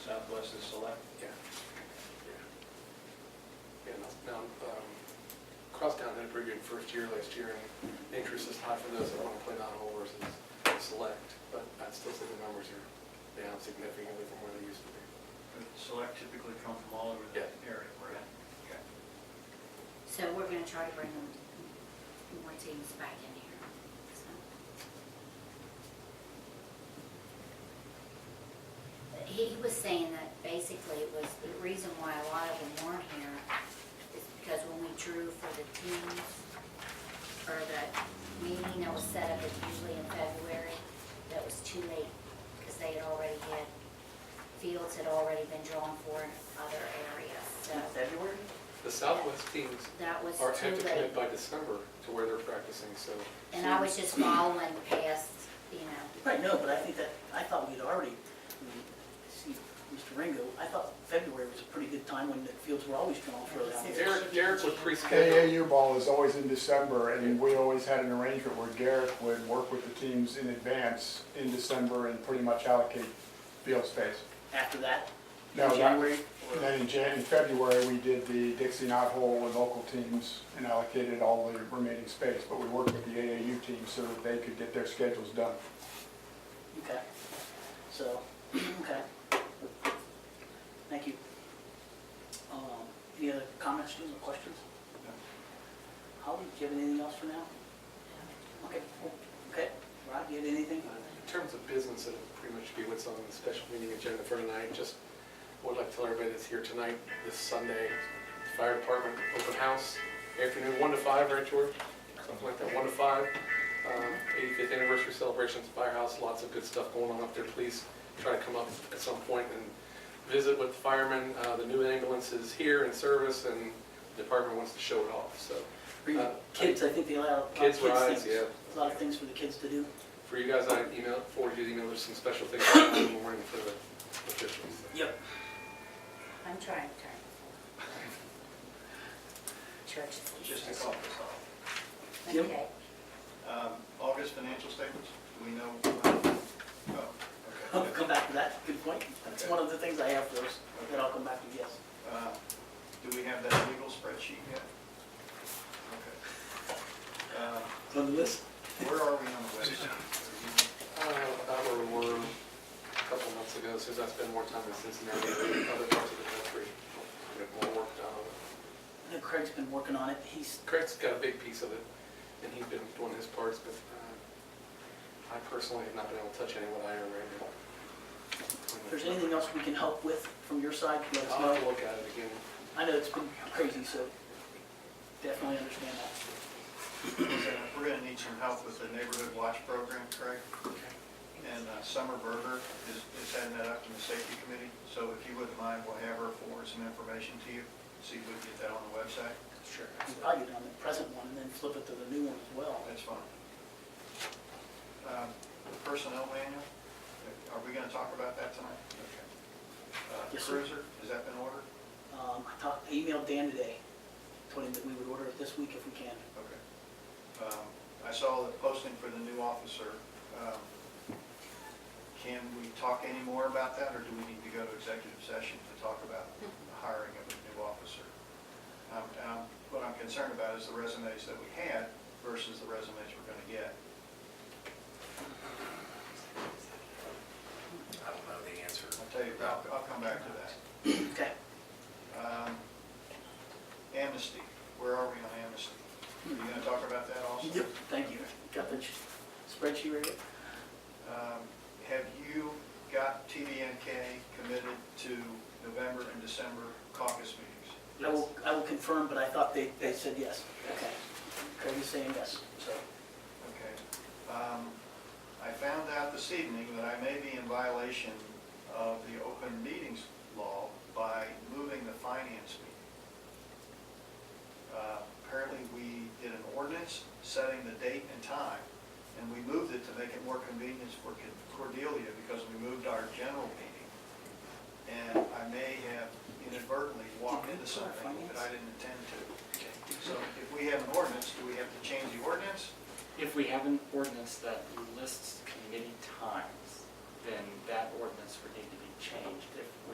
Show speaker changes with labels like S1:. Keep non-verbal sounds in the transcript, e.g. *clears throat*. S1: Southwestern Select.
S2: Yeah. Yeah, no, um, Crosstown had a pretty good first year last year, and interest is high for those that want to play non-hole versus select, but I still think the numbers are down significantly from where they used to be.
S1: But Select typically come from all over the
S2: Yeah.
S1: area we're in.
S3: So we're gonna try to bring them- more teams back in here, so. He was saying that basically it was, the reason why a lot of them weren't here is because when we drew for the teams, or the meeting that was set up, it's usually in February, that was too late, because they had already had, fields had already been drawn for in other areas, so
S4: February?
S2: The Southwest teams
S3: that was too
S2: are,
S3: late.
S2: have to commit by December to where they're practicing, so.
S3: And I was just following past, you know,
S4: Right, no, but I think that, I thought we'd already, I mean, see, Mr. Ringo, I thought February was a pretty good time when the fields were always drawn for that.
S2: Derek, Derek would pre-schedule.
S5: AAU ball is always in December, and we always had an arrangement where Garrett would work with the teams in advance in December and pretty much allocate field space.
S4: After that, in
S5: No, that-
S4: January,
S5: And
S4: or,
S5: then in Jan, in February, we did the Dixie Knot Hole with local teams and allocated all the remaining space, but we worked with the AAU team so that they could get their schedules done.
S4: okay, so, *clears throat* okay. Thank you. Um, Any other comments, students, or questions? Holly, do you have anything else for now? Okay, cool. okay, Rod, do you have anything?
S2: In terms of business, it'll pretty much be what's on the special meeting agenda for tonight. Just would like to tell everybody that's here tonight, this Sunday, fire department open house, afternoon, one to five, right, George? Something like that, one to five. Um, 85th anniversary celebrations, firehouse, lots of good stuff going on up there. Please try to come up at some point and visit with the firemen. Uh, The new ambulance is here in service and the department wants to show it off, so.
S4: For you
S2: Uh,
S4: Kids, I think they allow a lot of
S2: Kids
S4: kids
S2: rides,
S4: things.
S2: yeah.
S4: A lot of things for the kids
S2: *laughs*
S4: to do.
S2: For you guys, I emailed, forwarded you the email, there's some special things *coughs* in the morning for the officials.
S4: Yep.
S3: I'm trying to turn.
S1: *laughs*
S3: Church.
S1: Just to call this off.
S4: Yep.
S3: Okay,
S1: Um, August financial statements, do we know? uh, oh,
S4: I'll
S1: okay.
S2: *laughs*
S4: come back to that, good point. That's
S1: Okay.
S4: one of the things I have for those, that I'll come back to, yes.
S1: Uh, Do we have that legal spreadsheet yet? Okay. Uh,
S4: On the list?
S1: Where are we on the website?
S2: Uh, About where we were a couple months ago, since I spent more time in Cincinnati than other parts of the country. We had more work done. on it.
S4: I know Craig's been working on it, he's,
S2: Craig's got a big piece of it, and he's been doing his parts, but uh, I personally have not been able to touch any of what I already.
S4: if there's anything else we can help with from your side, let us
S2: I'll have to
S4: know.
S2: look at it again.
S4: I know it's been crazy, so definitely understand that.
S1: We're gonna need some help with the neighborhood watch program, Craig. And uh, Summer Berger is, is heading that up in the safety committee, so if you wouldn't mind, we'll have her forward some information to you, see if we can get that on the website.
S2: Sure.
S4: We probably get on the present one and then flip it to the new one as well.
S1: That's fine. Um, Personnel manual, are we gonna talk about that tonight? Okay. Uh,
S4: Yes, sir.
S1: Cruiser, has that been ordered?
S4: Um, I talked, I emailed Dan today, told him that we would order it this week if we can.
S1: Okay. Um, I saw the posting for the new officer. Um, Can we talk any more about that, or do we need to go to executive session to talk about the hiring of a new officer? Um, and I'm- What I'm concerned about is the resumes that we had versus the resumes we're going to get.
S6: I don't know the answer.
S1: I'll tell you, I'll I'll come back to that.
S2: *clears throat*
S4: Okay.
S1: Um, Amnesty, where are we on amnesty? Are you going to talk about that also?
S4: Yep, thank you. Got the spreadsheet ready?
S1: Um, Have you got TDNK committed to November and December caucus meetings?
S4: I will, I will confirm, but I thought they, they said yes. Okay. Craig is saying yes, so.
S1: Okay. Um, I found out this evening that I may be in violation of the open meetings law by moving the finance meeting. Uh, Apparently, we did an ordinance setting the date and time, and we moved it to make it more convenient for Cordelia because we moved our general meeting. And I may have inadvertently walked into something that I didn't intend to. So if we have an ordinance, do we have to change the ordinance?
S7: If we have an ordinance that lists committee times, then that ordinance would need to be changed if we